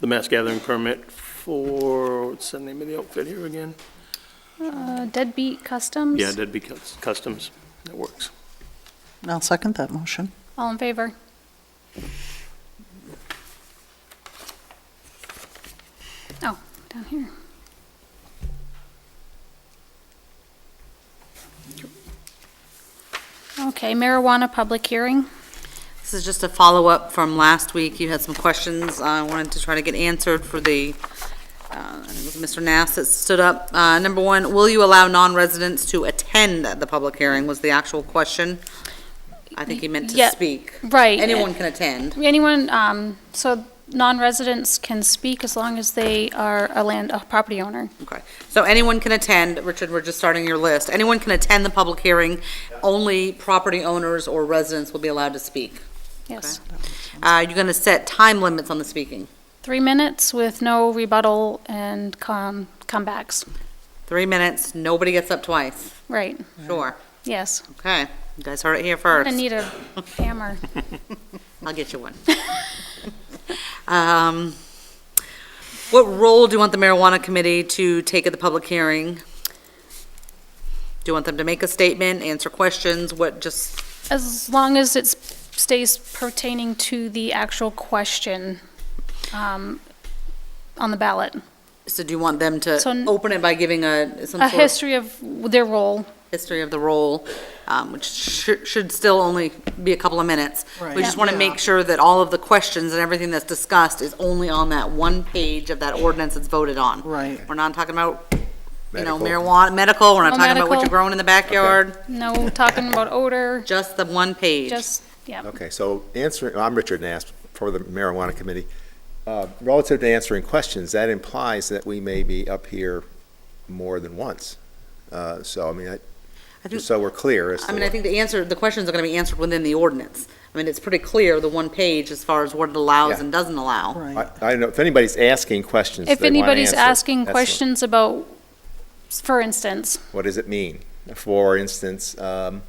the mass gathering permit for, what's the name of the outfit here again? Uh, Deadbeat Customs? Yeah, that'd be Cus- Customs. That works. I'll second that motion. All in favor? Oh, down here. Okay, marijuana public hearing. This is just a follow-up from last week. You had some questions I wanted to try to get answered for the, uh, I think it was Mr. Nass that stood up. Uh, Number one, will you allow non-residents to attend the public hearing was the actual question. I think he meant Yeah, to speak. right. Anyone can attend. Anyone, um, so non-residents can speak as long as they are a land, a property owner. Okay, so anyone can attend, Richard, we're just starting your list. Anyone can attend the public hearing, only property owners or residents will be allowed to speak. Yes. Uh, You're going to set time limits on the speaking, Three minutes with no rebuttal and com, comebacks. three minutes, nobody gets up twice, Right, sure, yes. okay, you guys heard it here I first, need a hammer. I'll get you one. Um, What role do you want the marijuana committee to take at the public hearing? Do you want them to make a statement, answer questions, what, just As long as it stays pertaining to the actual question um, on the ballot. So do you want them to So n- open it by giving a, some A sort of history of their role, history of the role, um, which should, should still only be a couple of minutes? We Right. just want to Yeah. make sure that all of the questions and everything that's discussed is only on that one page of that ordinance that's voted on. Right. We're not talking about, you know, Medical. marijuana, medical, we're not No talking about what Oh, medical. you're growing in the backyard, no talking about odor, just the one page. just, yeah. Okay, so answering, I'm Richard Nass, for the marijuana committee. Uh, Relative to answering questions, that implies that we may be up here more than once. Uh, So, I mean, I- I think- just so we're clear as to I mean, I what- think the answer, the questions are going to be answered within the ordinance. I mean, it's pretty clear, the one page, as far as what it allows Yeah. and doesn't allow. Right. I I don't know, if anybody's asking questions, If they want anybody's answers. asking That's what- questions about, for instance, What does it mean? For instance, um,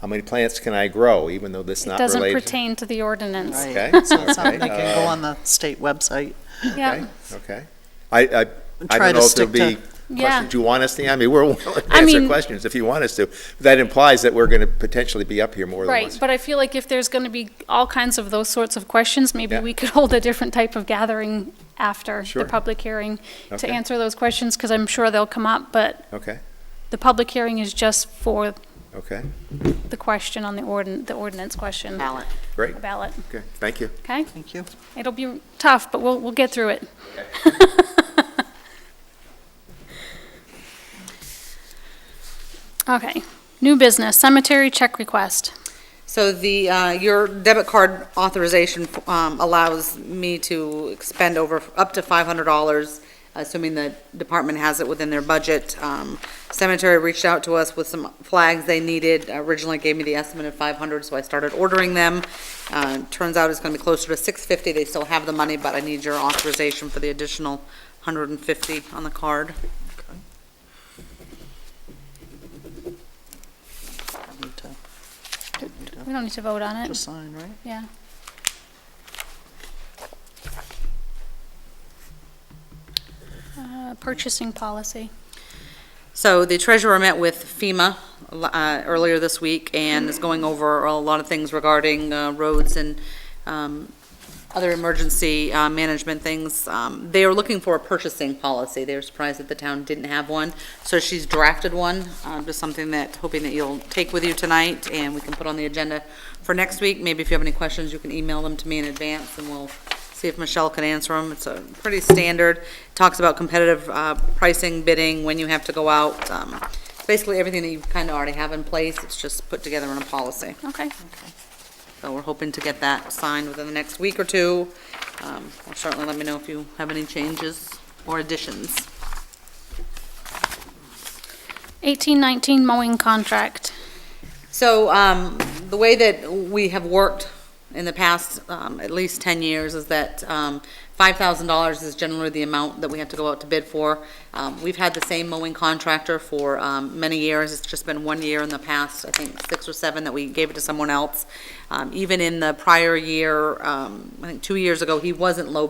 how many plants can I grow, even though this it not doesn't related? pertain to the ordinance. Right. Okay. So it's something okay, that can go on the state website. Yeah, Okay, okay. I, I, I Try don't to know if there'll stick to- be yeah. questions you want us to, I mean, we're willing to I answer mean- questions if you want us to. That implies that we're going to potentially be up here more than Right, once. but I feel like if there's going to be all kinds of those sorts of questions, maybe Yeah. we could hold a different type of gathering after the Sure. public hearing to Okay. answer those questions, because I'm sure they'll come up, but Okay, the public hearing is just for okay, the question on the ordin, the ordinance question. Ballot. great, Ballot, okay, thank you. okay? Thank you. It'll be tough, but we'll, we'll get through it. Okay, new business, cemetery check request. So the, uh, your debit card authorization um, allows me to expend over, up to $500, assuming the department has it within their budget. Um, Cemetery reached out to us with some flags they needed, originally gave me the estimate of 500, so I started ordering them. Uh, Turns out it's going to be closer to 650, they still have the money, but I need your authorization for the additional 150 on the card. Need to- need We don't need to vote on To it, sign, right? yeah. Uh, Purchasing policy. So the treasurer met with FEMA uh, earlier this week and is going over a lot of things regarding uh, roads and um, other emergency uh, management things. Um, They are looking for a purchasing policy. They were surprised that the town didn't have one, so she's drafted one, um, just something that, hoping that you'll take with you tonight and we can put on the agenda for next week. Maybe if you have any questions, you can email them to me in advance and we'll see if Michelle can answer them. It's a pretty standard, talks about competitive uh, pricing, bidding, when you have to go out. um, It's basically everything that you kind of already have in place, it's just put together in a policy. Okay, So we're hoping to get that signed within the next week or two. Um, well, Certainly let me know if you have any changes or additions. 1819 mowing contract. So, um, the way that we have worked in the past, um, at least ten years, is that, um, five thousand dollars is generally the amount that we have to go out to bid for. Um, we've had the same mowing contractor for, um, many years, it's just been one year in the past, I think six or seven, that we gave it to someone else. Um, even in the prior year, um, I think two years ago, he wasn't low